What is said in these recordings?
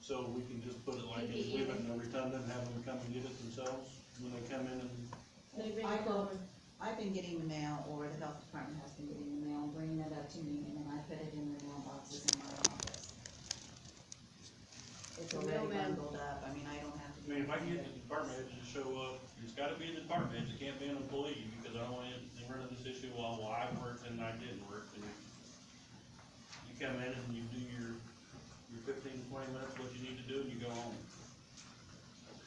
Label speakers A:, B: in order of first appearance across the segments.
A: So we can just put it like this, leave it and every time them have them come and get it themselves, when they come in and,
B: They bring
C: I
B: it
C: will-
B: over.
C: I've been getting the mail, or the health department has been getting the mail, bringing it up to me, and then I put it in the mailboxes in my office. It's
B: The
C: already
B: mailman.
C: bundled up, I mean, I don't have to.
A: I mean, if I can
C: do
A: get the department heads to show up, it's gotta be the department heads, it can't be an employee, because I don't want to run into this issue, well, well, I worked and I didn't work, and you come in and you do your, your fifteen, twenty minutes, what you need to do, and you go home.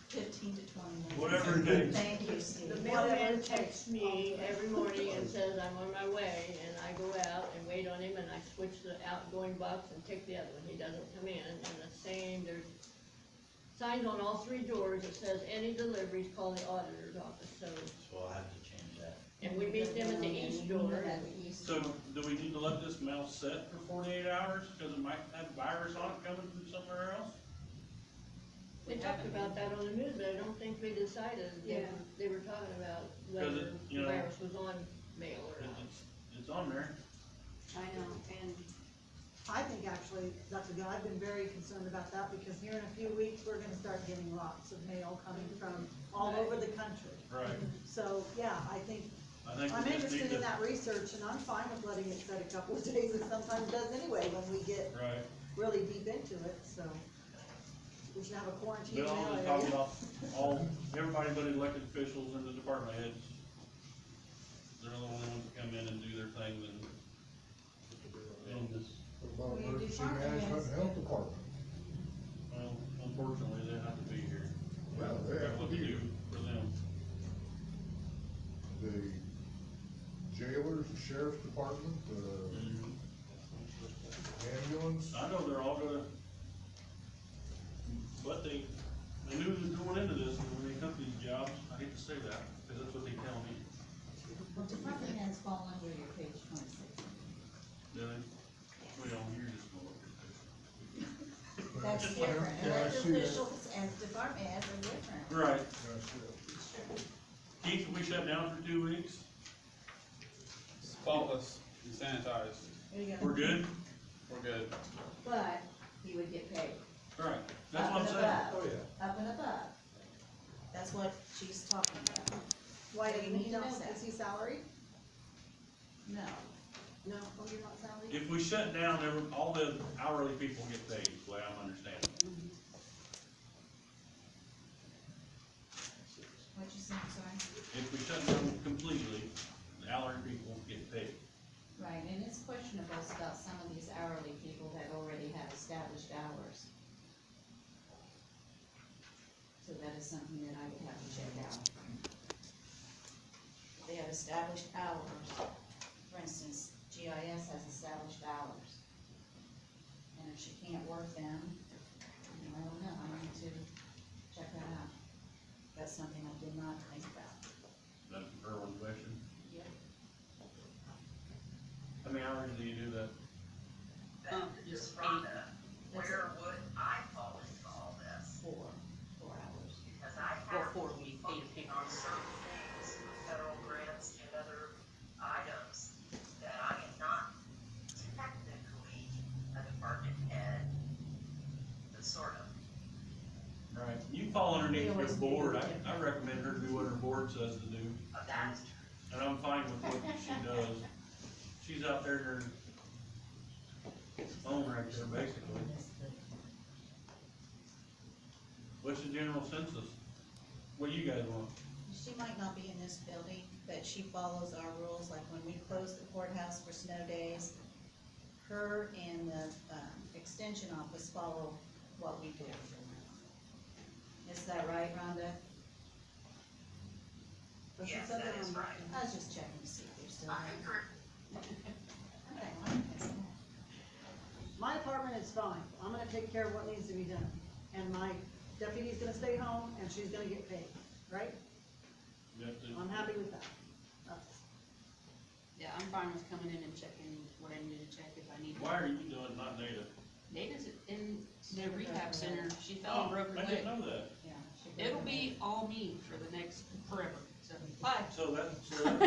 C: Fifteen to twenty minutes.
A: Whatever it takes.
C: Thank you, Steve.
B: The
C: Whatever
B: mailman
C: it takes.
B: texts me every morning and says I'm on my way, and I go out and wait on him, and I switch the outgoing box and take the other one, he doesn't come in, and the same, there's signs on all three doors that says any deliveries, call the auditor's office, so,
D: So I'll have to change that.
B: and we meet them at the east door.
C: At the east
A: So,
C: door.
A: do we need to let this mail set for forty-eight hours, cause it might have virus on it coming from somewhere else?
B: They talked about that on the news, but I don't think they decided, they,
C: Yeah.
B: they were talking about
A: Because
B: whether
A: it, you
B: the
A: know-
B: virus was on mail or
A: It-
B: not.
A: It's, it's on there.
E: I know, and I think actually, that's a good, I've been very concerned about that, because here in a few weeks, we're gonna start getting lots of mail coming from all over the country.
A: Right.
E: So, yeah, I think,
A: I think
E: I'm
A: we just need
E: interested in
A: to,
E: that research, and I'm fine with letting it set a couple of days, it sometimes does anyway, when we get
A: right,
E: really deep into it, so. We should have a quarantine
A: Bill,
E: mail
A: I'm talking
E: area.
A: about all, everybody but elected officials and the department heads. They're the only ones that come in and do their things and, and just,
F: What about
C: We do
F: emergency
C: park
F: management
C: events.
F: and health department?
A: well, unfortunately, they have to be here.
F: Yeah, they
A: Figure out
F: have
A: What
F: to
A: to
F: be.
A: do for them.
F: The jailers, the sheriff's department, the ambulance,
A: I know they're all gonna, but they, they knew they was going into this, and when they took these jobs, I hate to say that, because that's what they tell me.
C: Well, department heads fall under your page twenty-six.
A: Do they? Well, you're just gonna look at this.
C: That's different,
F: Yeah, I see
C: elected
F: that.
C: officials and department heads are different.
A: Right,
F: that's it.
A: Keith, we shut down for two weeks,
G: spotless and sanitized.
C: There you go.
A: we're good?
G: We're good.
C: But he would get paid.
A: Right, that's what I'm saying.
C: Up and above, up and above. That's what she's talking about.
E: Why, do
C: We
E: you need
C: need
E: to know,
C: that.
E: is he salary?
C: No,
E: No, oh, you're not salary?
A: If we shut down, every- all the hourly people get paid, is the way I'm understanding.
C: what you said, sorry.
A: If we shut down completely, the hourly people get paid.
C: Right, and it's questionable about some of these hourly people that already have established hours. So that is something that I would have to check out. They have established hours. For instance, GIS has established hours. And if she can't work them, then I don't know, I need to check that out. That's something I did not think about.
A: That's a fair question.
C: Yep.
A: How many hours do you do that?
C: Um,
H: Just Rhonda,
C: That's
H: where would I fall into all this?
C: four, four hours.
H: Because I
C: Well,
H: have
C: four,
H: to
C: we
H: be
C: need
H: focusing on certain things, federal grants and other items that I am not technically a department head, but sort of.
A: Right. You fall
C: We
A: underneath your
C: always do.
A: board, I, I recommend her to do what her board says to do,
H: But that's
A: and I'm fine with what she does. She's out there in her own right there, basically. What's the general census? What do you guys want?
C: She might not be in this building, but she follows our rules, like when we close the courthouse for snow days, her and the, um, extension office follow what we do. Is that right, Rhonda?
E: But she
H: Yes,
E: said
H: that
E: they're
H: is
E: on-
H: right.
C: I was just checking to see if you're still
H: I
C: there.
H: agree.
C: Okay, well, that's all.
E: My apartment is fine, I'm gonna take care of what needs to be done, and my deputy's gonna stay home, and she's gonna get paid, right?
A: You have to-
E: I'm happy with that. Uh, That's-
I: Yeah, I'm fine with coming in and checking what I need to check if I need. to.
A: Why are you doing not data?
I: Nada's in the
C: Never broke her
I: rehab center, she fell
A: Oh,
I: and broke her
A: I didn't
I: leg.
A: know that.
C: Yeah, she-
I: It'll be all me for the next forever, so, but
A: So that, so that